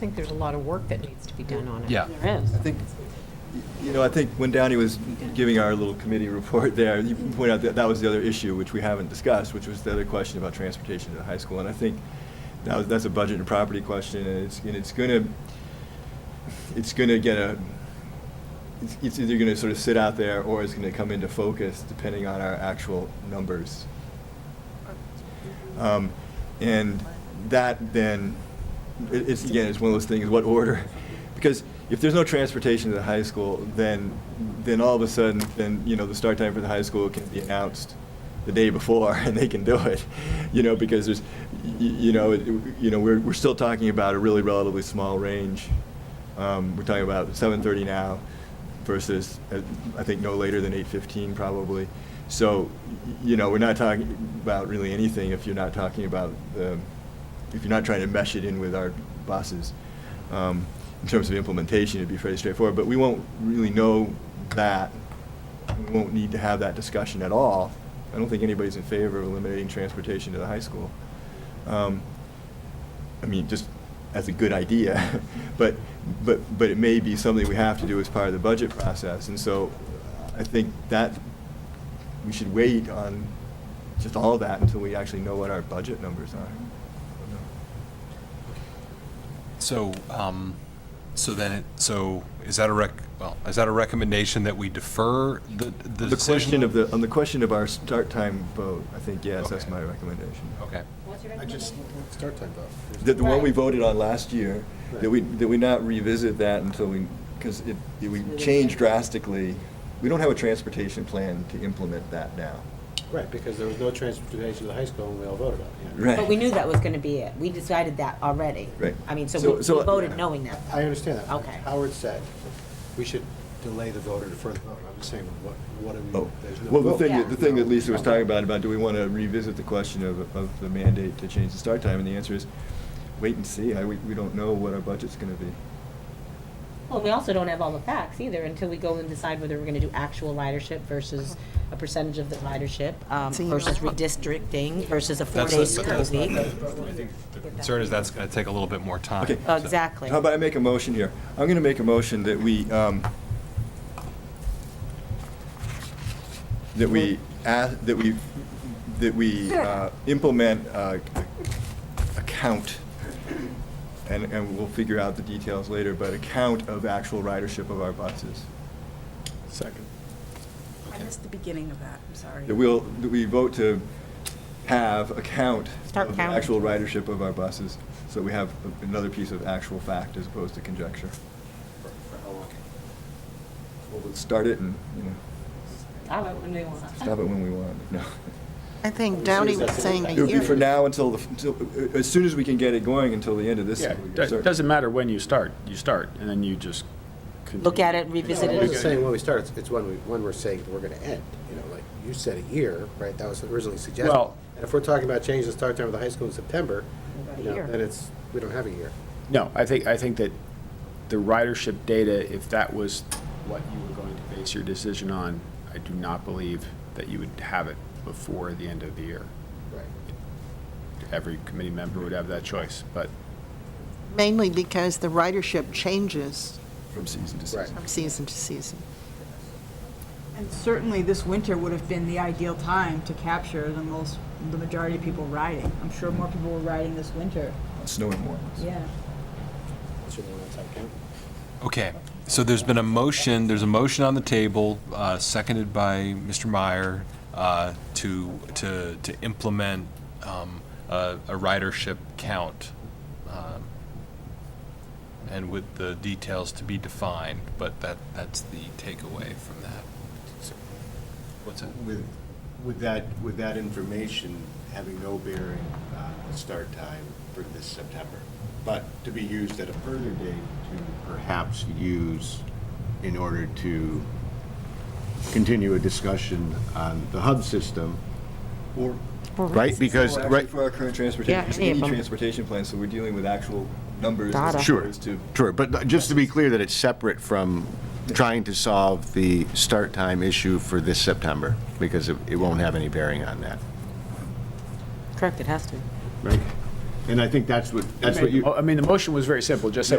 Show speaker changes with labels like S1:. S1: think there's a lot of work that needs to be done on it.
S2: Yeah.
S3: There is.
S4: I think, you know, I think when Downey was giving our little committee report there, you pointed out that that was the other issue, which we haven't discussed, which was the other question about transportation to the high school. And I think that was, that's a budget and property question, and it's, and it's gonna, it's gonna get a, it's- it's either gonna sort of sit out there, or it's gonna come into focus, depending on our actual numbers.
S5: Uh,
S4: Um, And that then, it- it's, again, it's one of those things, what order? Because if there's no transportation to the high school, then, then all of a sudden, then, you know, the start time for the high school can be announced the day before, and they can do it, you know, because there's, y- y- you know, it- you know, we're, we're still talking about a really relatively small range. Um, We're talking about 7:30 now versus, uh, I think, no later than 8:15 probably. So, y- you know, we're not talking about really anything if you're not talking about, the- if you're not trying to mesh it in with our buses. Um, In terms of implementation, it'd be fairly straightforward, but we won't really know that. We won't need to have that discussion at all. I don't think anybody's in favor of eliminating transportation to the high school. Um, I mean, just as a good idea, but, but, but it may be something we have to do as part of the budget process. And so I think that, we should wait on just all of that until we actually know what our budget numbers are.
S2: So, um, so then, it so is that a rec, well, is that a recommendation that we defer the, the
S4: The
S2: decision?
S4: question of the, on the question of our start time vote, I think, yes, that's
S2: Okay.
S4: my recommendation.
S2: Okay.
S3: What's your
S5: I just, start time though.
S4: The, the one we
S3: Right.
S4: voted on last year, that we, that we not revisit that until we, because it, it- we changed drastically. We don't have a transportation plan to implement that now.
S5: Right, because there was no transportation to the high school and we all voted on it. yeah.
S4: Right.
S3: But we knew that was gonna be it. We decided that already.
S4: Right.
S3: I mean, so
S4: So-
S3: we we
S4: so-
S3: voted knowing that.
S5: I understand that.
S3: Okay.
S5: Howard said, we should delay the vote or defer the vote. I'm just saying, what, what do
S4: Oh,
S5: we, Mm. there's no.
S4: well, the
S5: vote.
S4: thing,
S3: Yeah.
S4: that- the thing that Lisa was talking about, about do we want to revisit the question of, of the mandate to change the start time? And the answer is, wait and see. I, we, we don't know what our budget's going to be.
S3: Well, we also don't have all the facts either until we go and decide whether we're gonna do actual ridership versus a percentage of the ridership, um,
S1: So you know
S3: versus
S1: what?
S3: redistricting versus a
S2: That's
S3: four-day
S2: the-
S3: school
S2: that's
S3: week.
S2: The concern is that's going to take a little bit more time.
S4: Okay.
S2: so-
S3: Oh, Exactly.
S4: How about I make a motion here? I'm going to make a motion that we, um, that we, ask- that we, that we uh, implement uh, a count, and, and we'll figure out the details later, but a count of actual ridership of our buses.
S5: Second.
S6: I missed the beginning of that, I'm sorry.
S4: That we'll, that we vote to have a count
S3: Start
S4: of the
S3: counting.
S4: actual ridership of our buses, so we have another piece of actual fact as opposed to conjecture.
S5: For for how long?
S4: We'll start it and, you know,
S3: All right, when we want.
S4: stop it when we want, no.
S1: I think Downey was saying a
S4: It would be for
S1: year.
S4: now until, the until- as soon as we can get it going, until the end of this.
S7: Yeah,
S4: school year,
S7: it
S4: certainly.
S7: doesn't matter when you start, you start, and then you just. continue.
S3: Look at it,
S5: No,
S3: revisit
S5: I wasn't
S3: it.
S5: saying when we start, it's- it's when we, when we're saying we're gonna end, you know, like, you said a year, right? That was originally suggested.
S7: Well-
S5: And if we're talking about changing the start time of the high school in September, you know,
S3: year.
S5: then it's, we don't have a year.
S7: No, I think, I think that the ridership data, if that was what you were going to base your decision on, I do not believe that you would have it before the end of the year.
S5: Right.
S7: Every committee member would have that choice, but
S1: Mainly because the ridership changes
S4: From season to
S5: Right.
S4: season.
S1: from season to season.
S8: And certainly this winter would have been the ideal time to capture the most, the majority of people riding. I'm sure more people were riding this winter.
S4: Snowing more.
S8: Yeah.
S5: Should we want to take count?
S2: Okay, so there's been a motion, there's a motion on the table, uh, seconded by Mr. Meyer, uh, to, to, to implement um, a a ridership count, um, and with the details to be defined, but that, that's the takeaway from that. What's that?
S9: With, with that, with that information having no bearing on the start time for this September, but to be used at a further date to perhaps use in order to continue a discussion on the hub system,
S4: Or
S9: right? Because,
S4: Well, actually,
S9: right,
S4: For our current
S3: Yeah,
S4: transportation,
S3: any of
S4: any
S3: them.
S4: transportation plan, so we're dealing with actual numbers.
S3: Data.
S4: as
S9: Sure,
S4: opposed to-
S9: sure, but just to be clear that it's separate from trying to solve the start time issue for this September, because it, it won't have any bearing on that,
S3: Correct, it has to.
S9: right?
S10: And I think that's what, that's what you.
S9: Oh, I mean, the motion was very simple, just say